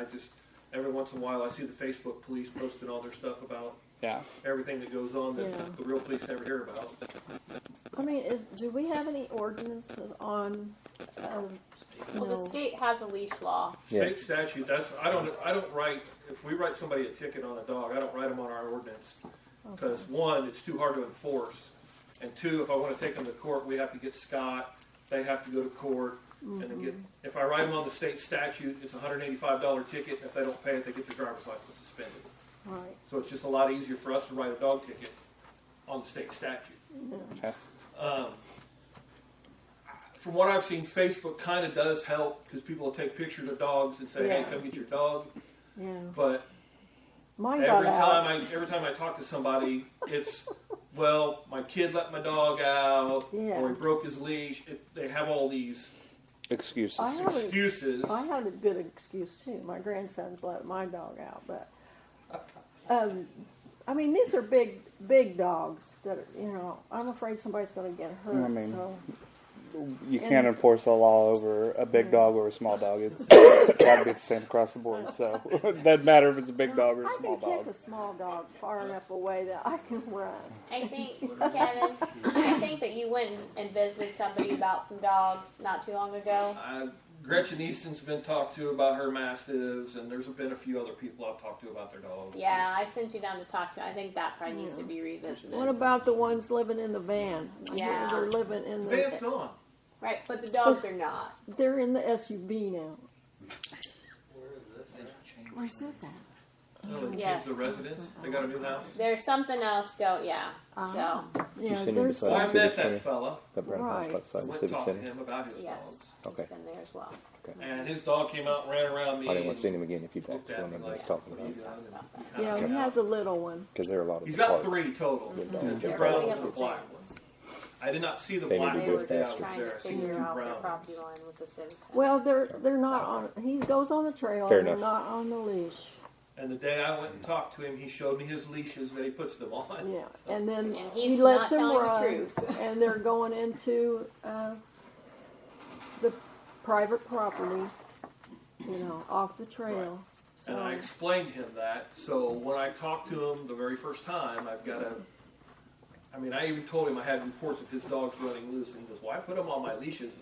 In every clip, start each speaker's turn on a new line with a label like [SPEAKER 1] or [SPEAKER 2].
[SPEAKER 1] I just every once in a while I see the Facebook police posting all their stuff about
[SPEAKER 2] Yeah.
[SPEAKER 1] everything that goes on that
[SPEAKER 3] Yeah.
[SPEAKER 1] the real police never hear about.
[SPEAKER 3] I mean, is, do we have any ordinances on, um,
[SPEAKER 4] Well, the
[SPEAKER 3] No.
[SPEAKER 4] state has a leash law.
[SPEAKER 5] Yeah.
[SPEAKER 1] State statute. That's I don't I don't write if we write somebody a ticket on a dog. I don't write them on our ordinance because one, it's too hard to enforce, and two, if I want to take them to court, we have to get Scott. They have to go to court, and then get. If I write them on the state statute, it's a hundred eighty-five dollar ticket. And if they don't pay it, they get their driver's license suspended.
[SPEAKER 3] right,
[SPEAKER 1] So it's just a lot easier for us to write a dog ticket on the state statute.
[SPEAKER 2] Okay.
[SPEAKER 1] From what I've seen, Facebook kind of does help because people will take pictures of dogs and say, "Hey,
[SPEAKER 3] Yeah.
[SPEAKER 1] come get your dog."
[SPEAKER 3] yeah.
[SPEAKER 1] But
[SPEAKER 3] Mine got
[SPEAKER 1] every time
[SPEAKER 3] out.
[SPEAKER 1] I every time I talk to somebody, it's well, my kid let my dog out, or he
[SPEAKER 3] Yes.
[SPEAKER 1] broke his leash. It, they have all these
[SPEAKER 2] Excuses.
[SPEAKER 3] I have an ex-
[SPEAKER 1] excuses.
[SPEAKER 3] I had a good excuse too. My grandson's let my dog out, but, um, I mean, these are big, big dogs that, are, you know, I'm afraid somebody's gonna get
[SPEAKER 2] I
[SPEAKER 3] hurt,
[SPEAKER 2] mean-
[SPEAKER 3] so,
[SPEAKER 2] you can't
[SPEAKER 3] and-
[SPEAKER 2] enforce the law over a big dog or a small dog. It's got to be the same across the board. So it doesn't matter if it's a big dog or a
[SPEAKER 3] I
[SPEAKER 2] small
[SPEAKER 3] can kick
[SPEAKER 2] dog.
[SPEAKER 3] a small dog far enough away that I can run.
[SPEAKER 4] I think, Kevin, I think that you went and visited somebody about some dogs not too long ago.
[SPEAKER 1] I, Gretchen Easton's been talked to about her mastiffs, and there's been a few other people I've talked to about their dogs.
[SPEAKER 4] Yeah, I sent you down to talk to. I think that probably needs to be revisited.
[SPEAKER 3] What about the ones living in the van? I hear
[SPEAKER 4] Yeah.
[SPEAKER 3] They're living in the.
[SPEAKER 1] Van's gone.
[SPEAKER 4] right, but the dogs are not.
[SPEAKER 3] They're in the SUV now.
[SPEAKER 6] Where's it at?
[SPEAKER 1] No, they
[SPEAKER 4] Yes.
[SPEAKER 1] changed the residence. They got a new house.
[SPEAKER 4] There's something else go. Yeah.
[SPEAKER 6] Ah.
[SPEAKER 4] So
[SPEAKER 3] Yeah,
[SPEAKER 5] sitting
[SPEAKER 3] there's-
[SPEAKER 1] So
[SPEAKER 5] beside-
[SPEAKER 1] I
[SPEAKER 5] Civic
[SPEAKER 1] met
[SPEAKER 5] Center.
[SPEAKER 1] that fella.
[SPEAKER 5] That brown house
[SPEAKER 3] Right.
[SPEAKER 5] right. outside the
[SPEAKER 1] Went and
[SPEAKER 5] civic
[SPEAKER 1] talked to
[SPEAKER 5] center.
[SPEAKER 1] him about his
[SPEAKER 4] yes,
[SPEAKER 1] dogs.
[SPEAKER 5] Okay.
[SPEAKER 4] it's been there as well.
[SPEAKER 1] And his dog came out and ran around me.
[SPEAKER 5] I didn't want
[SPEAKER 1] and
[SPEAKER 5] to see him again if you talked
[SPEAKER 1] looked
[SPEAKER 5] to
[SPEAKER 1] at
[SPEAKER 5] him
[SPEAKER 1] me
[SPEAKER 5] and I was
[SPEAKER 1] like,
[SPEAKER 5] talking
[SPEAKER 1] "What are
[SPEAKER 5] about
[SPEAKER 1] you doing?" And he
[SPEAKER 3] Yeah,
[SPEAKER 1] kinda
[SPEAKER 3] he
[SPEAKER 1] got
[SPEAKER 3] has a little one.
[SPEAKER 5] because there are a lot of
[SPEAKER 1] He's
[SPEAKER 5] the
[SPEAKER 1] got
[SPEAKER 5] park.
[SPEAKER 1] three total.
[SPEAKER 5] Yeah.
[SPEAKER 1] The
[SPEAKER 5] Yeah.
[SPEAKER 1] brown
[SPEAKER 4] Yeah.
[SPEAKER 1] one and the black one. I did not see the
[SPEAKER 5] They need
[SPEAKER 1] black one.
[SPEAKER 5] to
[SPEAKER 4] They
[SPEAKER 5] do it
[SPEAKER 4] were
[SPEAKER 1] but yeah, I
[SPEAKER 4] just
[SPEAKER 1] was
[SPEAKER 5] faster.
[SPEAKER 4] trying
[SPEAKER 1] there.
[SPEAKER 4] to
[SPEAKER 1] I seen two
[SPEAKER 4] figure out their
[SPEAKER 1] brown ones.
[SPEAKER 4] property line with the civic center.
[SPEAKER 3] Well, they're they're not on. He goes on the trail.
[SPEAKER 5] Fair
[SPEAKER 3] and They're
[SPEAKER 5] enough.
[SPEAKER 3] not on the leash.
[SPEAKER 1] And the day I went and talked to him, he showed me his leashes that he puts them on.
[SPEAKER 3] Yeah, and then
[SPEAKER 4] And
[SPEAKER 3] he
[SPEAKER 4] he's
[SPEAKER 3] lets
[SPEAKER 4] not
[SPEAKER 3] them
[SPEAKER 4] telling
[SPEAKER 3] run,
[SPEAKER 4] the truth.
[SPEAKER 3] and they're going into uh, the private property. You know, off the trail.
[SPEAKER 1] And
[SPEAKER 3] So-
[SPEAKER 1] I explained to him that. So when I talked to him the very first time, I've got a. I mean, I even told him I had reports of his dogs running loose, and he goes, "Why put them on my leashes?"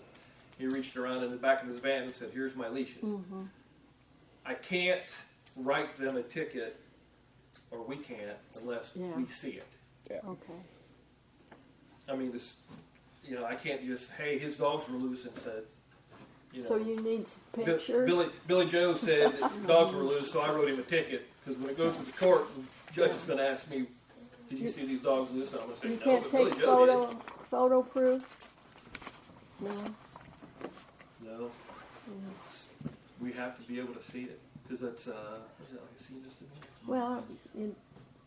[SPEAKER 1] He reached around in the back of his van and said, "Here's my leashes."
[SPEAKER 3] mm-hmm,
[SPEAKER 1] I can't write them a ticket, or we can't, unless
[SPEAKER 3] Yeah.
[SPEAKER 1] we see it.
[SPEAKER 2] Yeah.
[SPEAKER 3] Okay.
[SPEAKER 1] I mean, this. You know, I can't just, "Hey, his dogs were loose," and said. You know,
[SPEAKER 3] So you need some
[SPEAKER 1] Bi-
[SPEAKER 3] pictures.
[SPEAKER 1] Billy, Billy Joe said that dogs were loose, so I wrote him a ticket. Because when it goes to the court, the judge is going to ask me, "Did you see these dogs loose?" And I'm going to say,
[SPEAKER 3] you
[SPEAKER 1] "No."
[SPEAKER 3] can't
[SPEAKER 1] but
[SPEAKER 3] take
[SPEAKER 1] Billy Joe
[SPEAKER 3] photo photo proof. No.
[SPEAKER 1] Did. No.
[SPEAKER 3] Mm-hmm.
[SPEAKER 1] We have to be able to see it because that's uh, what is that, like a scene just a
[SPEAKER 3] Well, you,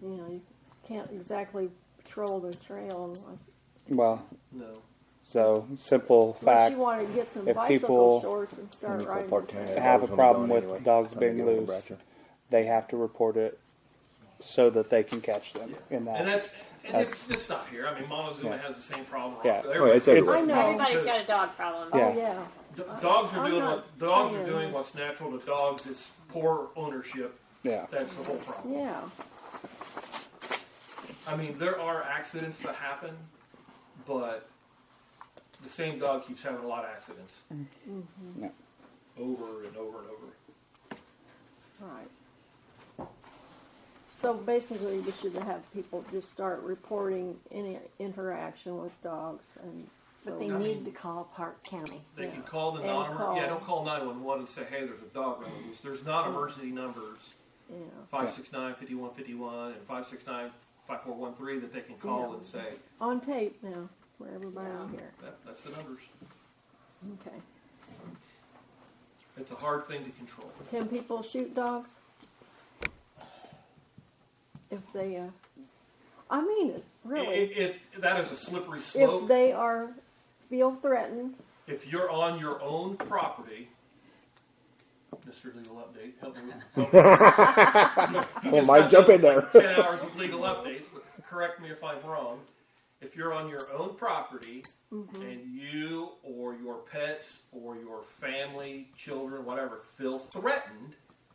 [SPEAKER 3] you know, you can't exactly patrol the trail unless,
[SPEAKER 2] Well,
[SPEAKER 1] minute? No.
[SPEAKER 2] so simple
[SPEAKER 3] unless
[SPEAKER 2] fact.
[SPEAKER 3] you want to get some
[SPEAKER 2] if
[SPEAKER 3] bicycle
[SPEAKER 2] people-
[SPEAKER 3] shorts and start
[SPEAKER 5] Wonderful
[SPEAKER 3] riding.
[SPEAKER 5] park
[SPEAKER 3] the
[SPEAKER 5] town.
[SPEAKER 3] trail.
[SPEAKER 5] Yeah.
[SPEAKER 2] have a
[SPEAKER 5] Dogs on the
[SPEAKER 2] problem
[SPEAKER 5] dawn
[SPEAKER 2] with
[SPEAKER 5] anyway.
[SPEAKER 2] dogs
[SPEAKER 5] Time to
[SPEAKER 2] being
[SPEAKER 5] get on the
[SPEAKER 2] loose.
[SPEAKER 5] Bratcher.
[SPEAKER 2] They have to report it so that they can catch them. In that,
[SPEAKER 1] And that and it's, it's not here. I mean, Montezuma
[SPEAKER 2] Yeah.
[SPEAKER 1] has the same problem.
[SPEAKER 2] Yeah.
[SPEAKER 1] Every-
[SPEAKER 5] Oh, it's everywhere.
[SPEAKER 3] I know.
[SPEAKER 4] Everybody's got a dog problem.
[SPEAKER 2] Yeah.
[SPEAKER 3] Oh yeah.
[SPEAKER 1] d- dogs are
[SPEAKER 3] I'm
[SPEAKER 1] doing
[SPEAKER 3] not
[SPEAKER 1] what dogs are
[SPEAKER 3] saying
[SPEAKER 1] doing
[SPEAKER 3] this.
[SPEAKER 1] what's natural to dogs. It's poor ownership.
[SPEAKER 2] yeah,
[SPEAKER 1] That's the whole problem.
[SPEAKER 3] Yeah.
[SPEAKER 1] I mean, there are accidents that happen, but the same dog keeps having a lot of accidents
[SPEAKER 3] Mm-hmm.
[SPEAKER 5] Mm-hmm.
[SPEAKER 2] yeah.
[SPEAKER 1] over and over and over.
[SPEAKER 3] Right. So basically, we should have people just start reporting any interaction with dogs, and so
[SPEAKER 6] But they
[SPEAKER 1] I
[SPEAKER 6] need
[SPEAKER 1] mean-
[SPEAKER 6] to call Park County.
[SPEAKER 1] They
[SPEAKER 3] Yeah.
[SPEAKER 1] can call the
[SPEAKER 3] And
[SPEAKER 1] non
[SPEAKER 3] call. Mm.
[SPEAKER 1] yeah, don't call 911 and say, hey, there's a dog running loose. There's not emergency numbers
[SPEAKER 3] you know.
[SPEAKER 1] 569 5151 and 569 5413 that they can call
[SPEAKER 3] Yeah.
[SPEAKER 1] and say,
[SPEAKER 3] on tape now for everybody on
[SPEAKER 4] Yeah.
[SPEAKER 3] here.
[SPEAKER 1] that, that's the numbers.
[SPEAKER 3] Okay.
[SPEAKER 1] It's a hard thing to control.
[SPEAKER 3] Can people shoot dogs? If they, uh, I mean it, really.
[SPEAKER 1] It, it, it- that is a slippery slope.
[SPEAKER 3] If they are, feel threatened,
[SPEAKER 1] if you're on your own property, Mr. Legal Update, help me. Help me. You just
[SPEAKER 5] might
[SPEAKER 1] got
[SPEAKER 5] jump
[SPEAKER 1] done
[SPEAKER 5] in
[SPEAKER 1] with
[SPEAKER 5] there.
[SPEAKER 1] Ten hours of legal updates. But correct me if I'm wrong. If you're on your own property
[SPEAKER 5] Mm-hmm.
[SPEAKER 1] and you or your pets or your family, children, whatever, feel threatened,